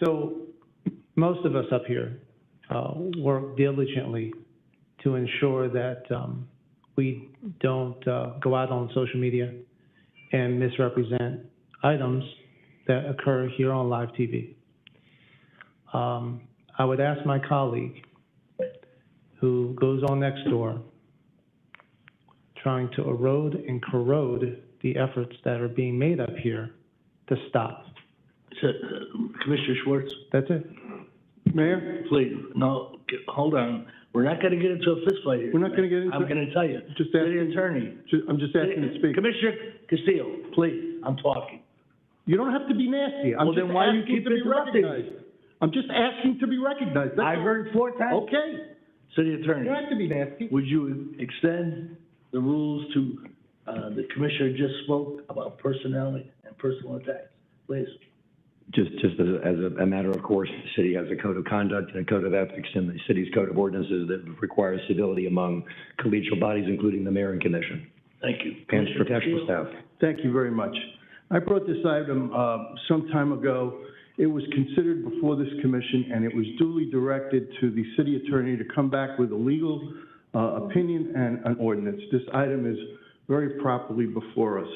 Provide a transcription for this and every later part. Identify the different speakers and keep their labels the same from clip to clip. Speaker 1: so most of us up here, uh, work diligently to ensure that, um, we don't, uh, go out on social media and misrepresent items that occur here on live TV. Um, I would ask my colleague, who goes on next door, trying to erode and corrode the efforts that are being made up here to stop.
Speaker 2: So, uh, Commissioner Schwartz,
Speaker 1: That's it.
Speaker 3: Mayor,
Speaker 2: please, no, g- hold on. We're not gonna get into a fistfight here.
Speaker 3: we're not gonna get
Speaker 2: I'm
Speaker 3: into,
Speaker 2: gonna tell you.
Speaker 3: just
Speaker 2: City
Speaker 3: asking,
Speaker 2: attorney. Uh,
Speaker 3: ju- I'm just asking to speak.
Speaker 2: Commissioner Castillo, please, I'm talking.
Speaker 3: You don't have to be nasty. I'm
Speaker 2: Well,
Speaker 3: just
Speaker 2: then why do you
Speaker 3: asking
Speaker 2: keep
Speaker 3: to be
Speaker 2: interrupting me?
Speaker 3: recognized. I'm just asking to be recognized. That's
Speaker 2: I've
Speaker 3: all.
Speaker 2: heard four times.
Speaker 3: Okay,
Speaker 2: City
Speaker 3: you
Speaker 2: attorney,
Speaker 3: don't have to be nasty.
Speaker 2: would you extend the rules to, uh, the commissioner just spoke about personality and personal attacks? Please.
Speaker 4: Just, just as, as a- a matter of course, the city has a code of conduct and a code of ethics and the city's code of ordinances that requires civility among collegial bodies, including the mayor and commission,
Speaker 2: Thank you.
Speaker 4: and
Speaker 2: Commissioner
Speaker 4: professional
Speaker 2: Castillo.
Speaker 4: staff.
Speaker 3: Thank you very much. I brought this item uh, some time ago. It was considered before this commission, and it was duly directed to the city attorney to come back with a legal uh, opinion and an ordinance. This item is very properly before us.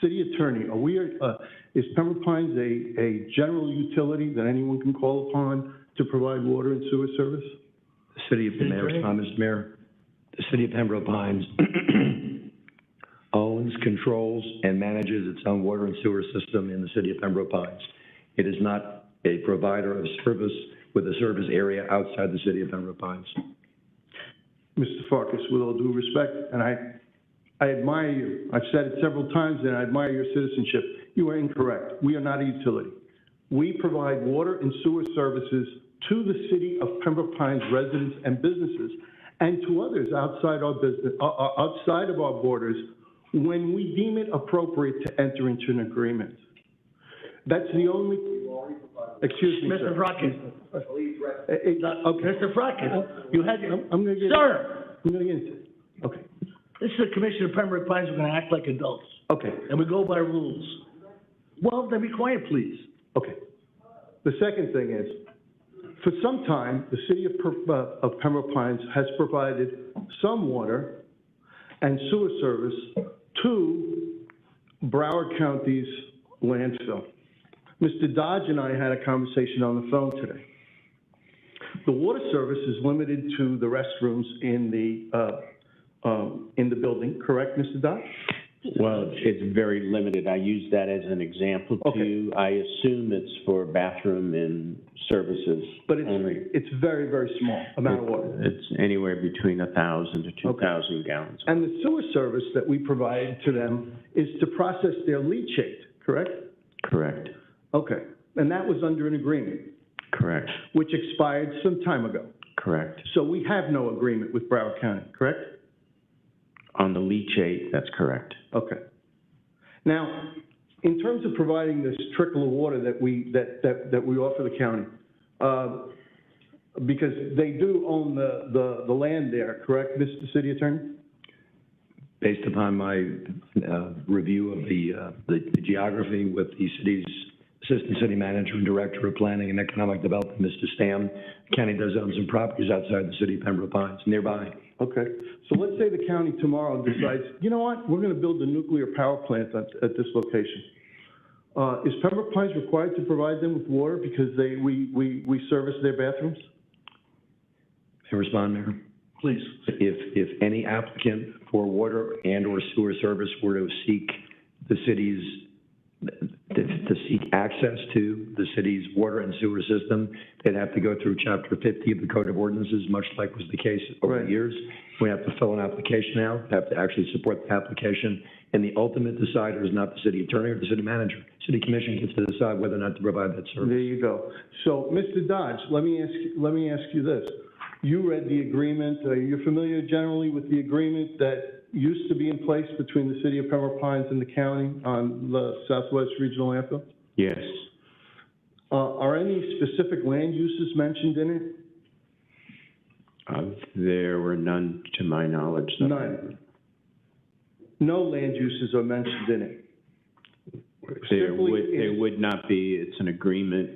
Speaker 3: City attorney, are we, uh, is Pembroke Pines a, a general utility that anyone can call upon to provide water and sewer service?
Speaker 4: The city of, may I respond, Mr. Mayor? The city of Pembroke Pines owns, controls, and manages its own water and sewer system in the city of Pembroke Pines. It is not a provider of service with a service area outside the city of Pembroke Pines.
Speaker 3: Mr. Farkas, with all due respect, and I, I admire you. I've said it several times, and I admire your citizenship. You are incorrect. We are not a utility. We provide water and sewer services to the city of Pembroke Pines residents and businesses, and to others outside our business, uh, uh, outside of our borders, when we deem it appropriate to enter into an agreement. That's the only, excuse me,
Speaker 2: Mr.
Speaker 3: sir.
Speaker 2: Frockin,
Speaker 3: Eh, eh, Okay,
Speaker 2: Mr. Frockin, Uh, you had your,
Speaker 3: I'm, I'm gonna get, I'm
Speaker 2: sir,
Speaker 3: gonna get into it. Okay,
Speaker 2: this is the commissioner of Pembroke Pines, we're gonna act like adults.
Speaker 3: okay.
Speaker 2: and we go by rules. Well, then be quiet, please.
Speaker 3: Okay. The second thing is, for some time, the city of Per- uh, of Pembroke Pines has provided some water and sewer service to Broward County's landfill. Mr. Dodge and I had a conversation on the phone today. The water service is limited to the restrooms in the, uh, um, in the building, correct, Mr. Dodge?
Speaker 5: Well, it's very limited. I use that as an example
Speaker 3: Okay.
Speaker 5: too. I assume it's for bathroom and services
Speaker 3: But it's,
Speaker 5: only.
Speaker 3: it's very, very small amount of water.
Speaker 5: It's anywhere between a thousand to two thousand gallons.
Speaker 3: And the sewer service that we provide to them is to process their leachate, correct?
Speaker 5: Correct,
Speaker 3: Okay, and that was under an agreement,
Speaker 5: correct,
Speaker 3: which expired some time ago.
Speaker 5: correct.
Speaker 3: So we have no agreement with Broward County, correct?
Speaker 5: On the leachate, that's correct.
Speaker 3: Okay. Now, in terms of providing this trickle of water that we, that, that, that we offer the county, uh, because they do own the, the, the land there, correct, Mr. City Attorney?
Speaker 4: based upon my uh, review of the, uh, the the geography with the city's Assistant City Manager and Director of Planning and Economic Development, Mr. Stam, county does own some properties outside the city of Pembroke Pines nearby.
Speaker 3: Okay, so let's say the county tomorrow decides, you know what, we're gonna build a nuclear power plant at, at this location. Uh, is Pembroke Pines required to provide them with water because they, we, we, we service their bathrooms?
Speaker 4: May I respond, Mayor?
Speaker 2: Please.
Speaker 4: If, if any applicant for water and/or sewer service were to seek the city's, to to seek access to the city's water and sewer system, they'd have to go through Chapter 50 of the Code of Ordinances, much like was the case over
Speaker 3: Right.
Speaker 4: the years. We have to fill an application out, have to actually support the application, and the ultimate decider is not the city attorney or the city manager. City commission gets to decide whether or not to provide that service.
Speaker 3: There you go. So, Mr. Dodge, let me ask, you- let me ask you this. You read the agreement, uh, you're familiar generally with the agreement that used to be in place between the city of Pembroke Pines and the county on the Southwest Regional Landfill?
Speaker 5: Yes,
Speaker 3: Uh, are any specific land uses mentioned in it?
Speaker 5: uh, there were none to my knowledge. that-
Speaker 3: None. No land uses are mentioned in it.
Speaker 5: There
Speaker 3: Simply
Speaker 5: would, there
Speaker 3: is-
Speaker 5: would not be. It's an agreement